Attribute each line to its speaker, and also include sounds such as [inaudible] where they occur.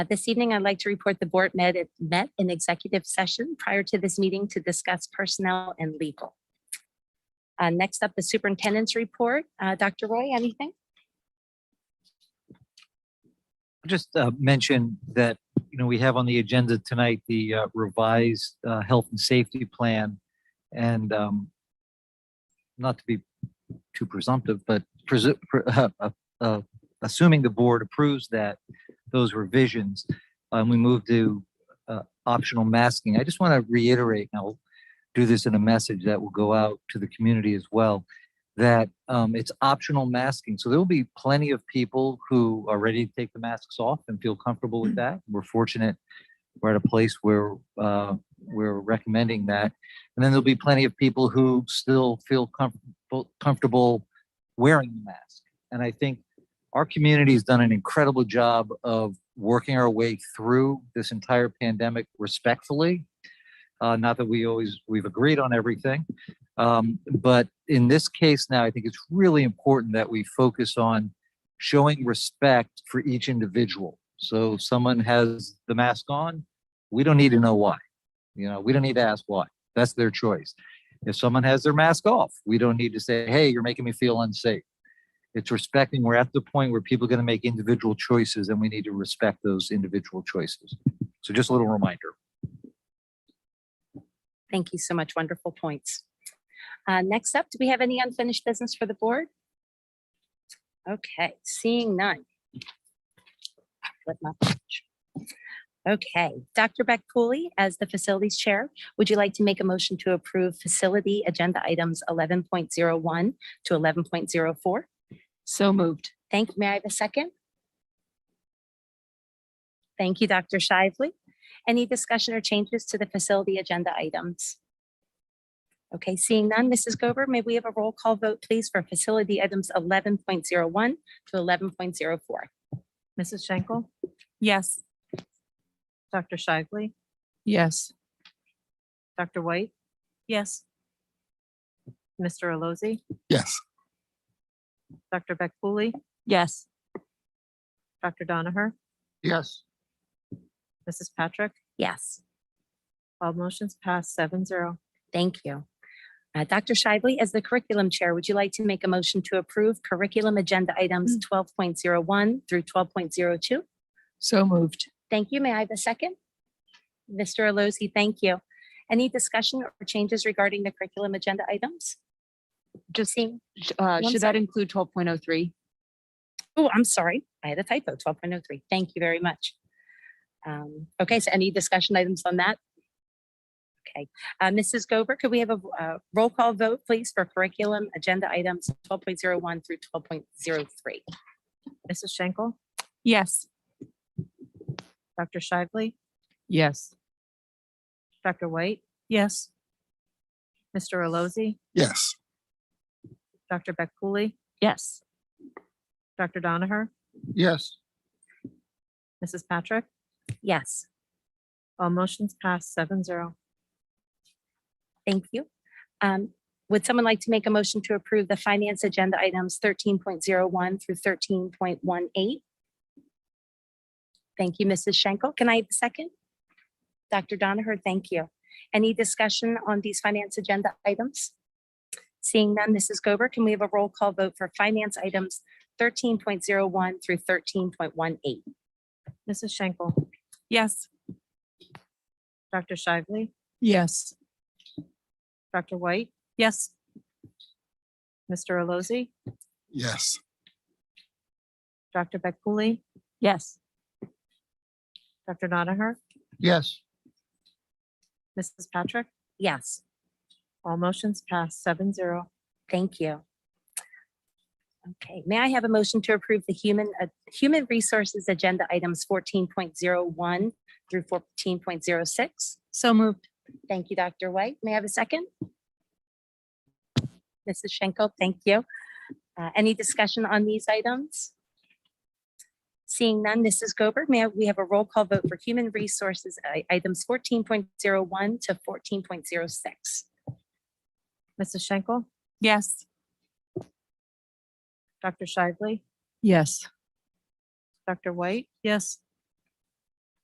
Speaker 1: Uh, This evening, I'd like to report the board met, met in executive session prior to this meeting to discuss personnel and legal. Uh, Next up, the superintendent's report. Uh, Dr. Roy, anything?
Speaker 2: just uh, mention that, you know, we have on the agenda tonight the uh, revised uh, health and safety plan. And um, not to be too presumptive, but presu- pre- [laughs] uh, uh, uh, assuming the board approves that, those revisions, um, we move to uh, optional masking. I just want to reiterate, and I'll do this in a message that will go out to the community as well, that um, it's optional masking. So there will be plenty of people who are ready to take the masks off and feel comfortable with that. We're fortunate we're at a place where uh, we're recommending that. And then there'll be plenty of people who still feel comfortable comfortable wearing the mask. And I think our community has done an incredible job of working our way through this entire pandemic respectfully. Uh, not that we always we've agreed on everything, um, but in this case now, I think it's really important that we focus on showing respect for each individual. So if someone has the mask on, we don't need to know why. You know, we don't need to ask why. That's their choice. If someone has their mask off, we don't need to say, hey, you're making me feel unsafe. It's respecting, we're at the point where people are going to make individual choices and we need to respect those individual choices. So just a little reminder.
Speaker 1: Thank you so much. Wonderful points. Uh, Next up, do we have any unfinished business for the board? Okay, seeing none. Flip my page. Okay, Dr. Beck Cooley, as the facilities chair, would you like to make a motion to approve facility agenda items 11.01 to 11.04?
Speaker 3: So moved.
Speaker 1: Thank you. May I have a second? Thank you, Dr. Shively. Any discussion or changes to the facility agenda items? Okay, seeing none, Mrs. Gober, may we have a roll call vote, please, for facility items 11.01 to 11.04?
Speaker 4: Mrs. Schenkel,
Speaker 3: Yes.
Speaker 4: Dr. Shively,
Speaker 3: Yes.
Speaker 4: Dr. White,
Speaker 3: Yes.
Speaker 4: Mr. Allozy,
Speaker 5: Yes,
Speaker 4: Dr. Beck Cooley,
Speaker 3: Yes.
Speaker 4: Dr. Donaher,
Speaker 5: yes,
Speaker 4: Mrs. Patrick.
Speaker 1: Yes,
Speaker 4: All motions passed seven zero.
Speaker 1: thank you. Uh, Dr. Shively, as the curriculum chair, would you like to make a motion to approve curriculum agenda items 12.01 through 12.02?
Speaker 3: So moved.
Speaker 1: Thank you. May I have a second? Mr. Allozy, thank you. Any discussion or changes regarding the curriculum agenda items?
Speaker 3: Just,
Speaker 1: Seeing,
Speaker 3: sh- uh,
Speaker 1: One
Speaker 3: should that include twelve point oh three?
Speaker 1: oh, I'm sorry, I had a typo, twelve point oh three. Thank you very much. Um, Okay, so any discussion items on that? Okay, Uh, Mrs. Gober, could we have a uh, roll call vote, please, for curriculum agenda items twelve point zero one through twelve point zero three?
Speaker 4: Mrs. Schenkel,
Speaker 3: Yes.
Speaker 4: Dr. Shively,
Speaker 3: Yes.
Speaker 4: Dr. White,
Speaker 3: Yes.
Speaker 4: Mr. Allozy,
Speaker 5: yes,
Speaker 4: Dr. Beck Cooley,
Speaker 3: Yes.
Speaker 4: Dr. Donaher,
Speaker 5: yes,
Speaker 4: Mrs. Patrick.
Speaker 1: Yes,
Speaker 4: All motions passed seven zero.
Speaker 1: thank you. Um, Would someone like to make a motion to approve the finance agenda items thirteen point zero one through thirteen point one eight? Thank you, Mrs. Schenkel. Can I have a second? Dr. Donaher, thank you. Any discussion on these finance agenda items? Seeing none, Mrs. Gober, can we have a roll call vote for finance items thirteen point zero one through thirteen point one eight?
Speaker 4: Mrs. Schenkel,
Speaker 3: Yes.
Speaker 4: Dr. Shively,
Speaker 3: Yes.
Speaker 4: Dr. White,
Speaker 3: Yes.
Speaker 4: Mr. Allozy,
Speaker 5: yes,
Speaker 4: Dr. Beck Cooley,
Speaker 3: Yes.
Speaker 4: Dr. Donaher,
Speaker 5: yes,
Speaker 4: Mrs. Patrick.
Speaker 1: Yes.
Speaker 4: All motions passed seven zero.
Speaker 1: Thank you. Okay, may I have a motion to approve the human, uh, human resources agenda items fourteen point zero one through fourteen point zero six?
Speaker 3: So moved.
Speaker 1: Thank you, Dr. White. May I have a second? Mrs. Schenkel, thank you. Uh, Any discussion on these items? Seeing none, Mrs. Gober, may I- we have a roll call vote for human resources i- items fourteen point zero one to fourteen point zero six?
Speaker 4: Mrs. Schenkel,
Speaker 3: Yes.
Speaker 4: Dr. Shively,
Speaker 3: Yes.
Speaker 4: Dr. White? Yes.